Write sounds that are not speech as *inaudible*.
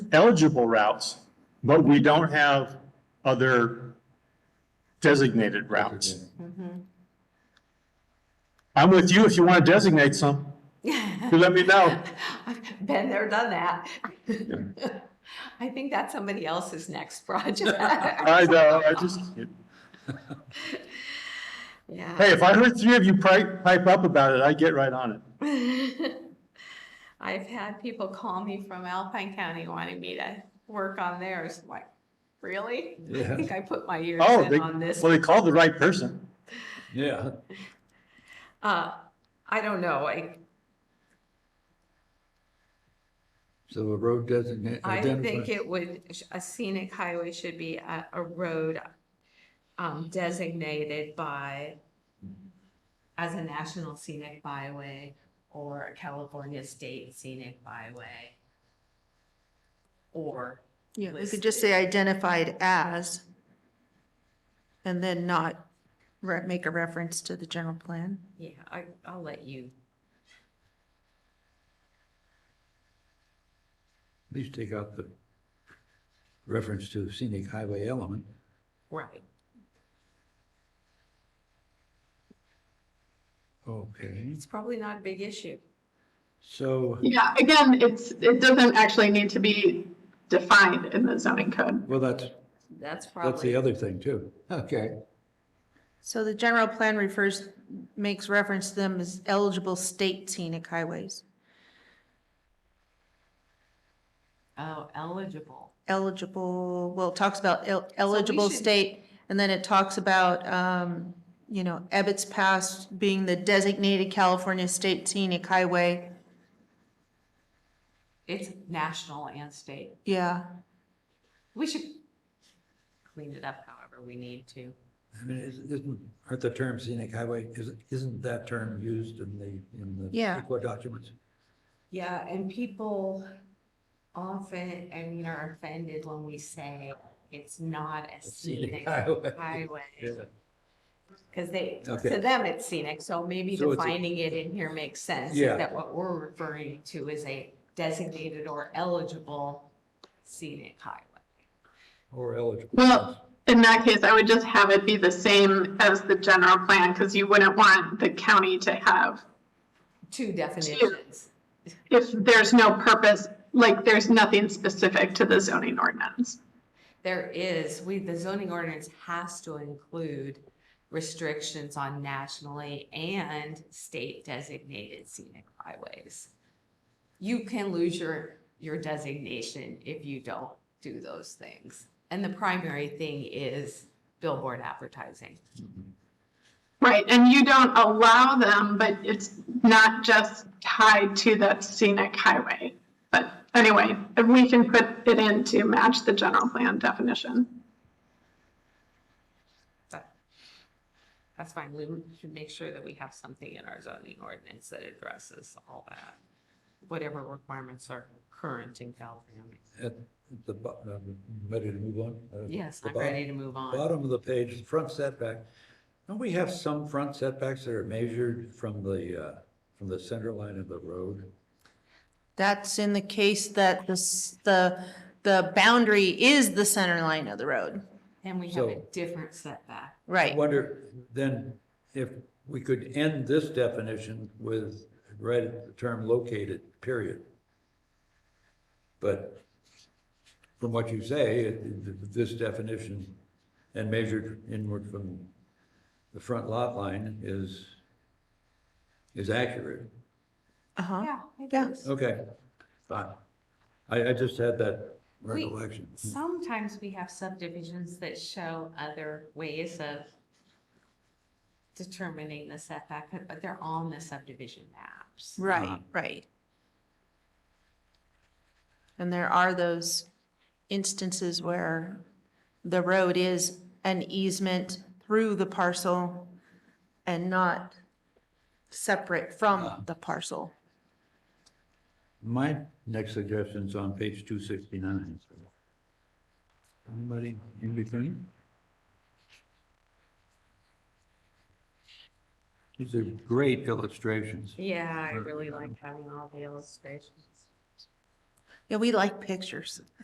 eligible routes, but we don't have other designated routes. Mm-hmm. I'm with you if you want to designate some. *laughs* You let me know. I've Been there, done that. *laughs* I think that's somebody else's next *laughs* project. *laughs* *laughs* I know, I just, Yeah. hey, if I heard three of you pipe, pipe up about it, I'd get right on it. *laughs* I've had people call me from Alpine County wanting me to work on theirs. I'm Like, really? I *laughs* Yeah. think I put my ears Oh, they, in on this. well, they called the right person. Yeah. Uh, I don't know. I, So a road designate. I think identify- it would, a scenic highway should be a, a road um, designated by, as a national scenic byway or a California state scenic byway. Or, Yeah, we could just say identified as and then not re- make a reference to the general plan. yeah, I, I'll let you, At least take out the reference to scenic highway element. right. Okay, It's probably not a big issue. so, Yeah, again, it's, it doesn't actually need to be defined in the zoning code. well, that's, That's that's the probably, other thing too. Okay, So the general plan refers, makes reference to them as eligible state scenic highways, oh, eligible. eligible, well, it talks about el- eligible should- state, and then it talks about, um, you know, Ebbets Pass being the designated California state scenic highway. It's national and state. Yeah, We should clean it up however we need to. I mean, is- isn't, aren't the term scenic highway, isn't, isn't that term used in the, in the Yeah. CEQA documents? Yeah, and people often, I mean, are offended when we say it's not a Scenic scenic highway. *laughs* highway. Yeah. Because they, Okay. to them, it's scenic, so maybe So it's a- defining it in here makes sense. is Yeah. That what we're referring to is a designated or eligible scenic highway. Or eligible. Well, in that case, I would just have it be the same as the general plan, because you wouldn't want the county to have, Two definitions. if there's no purpose, like, there's nothing specific to the zoning ordinance. There is, we, the zoning ordinance has to include restrictions on nationally and state designated scenic highways. You can lose your, your designation if you don't do those things. And the primary thing is billboard advertising. Right, and you don't allow them, but it's not just tied to that scenic highway. But anyway, we can put it in to match the general plan definition. That- That's fine, we should make sure that we have something in our zoning ordinance that addresses all that, whatever requirements are current in California. At the, bo- um, ready to move on? Uh, Yes, the I'm bottom- ready to move on. Bottom of the page, the front setback. Don't we have some front setbacks that are measured from the, uh, from the center line of the road? that's in the case that the, s- the, the boundary is the center line of the road, And we have a So- different setback. I right? wonder then if we could end this definition with, right, at the term located, period. But from what you say, it- it- this definition and measured inward from the front lot line is, is accurate. Uh-huh. Yeah. it Yeah. is. Okay, fine. I, I just had that We- recollection. Sometimes we have subdivisions that show other ways of determining the setback, but- but they're on the subdivision maps. Right, right. And there are those instances where the road is an easement through the parcel and not separate from the parcel. My next suggestion's on page two sixty-nine. Anybody in between? These are great illustrations. Yeah, I really like having all the illustrations. Yeah, we like pictures.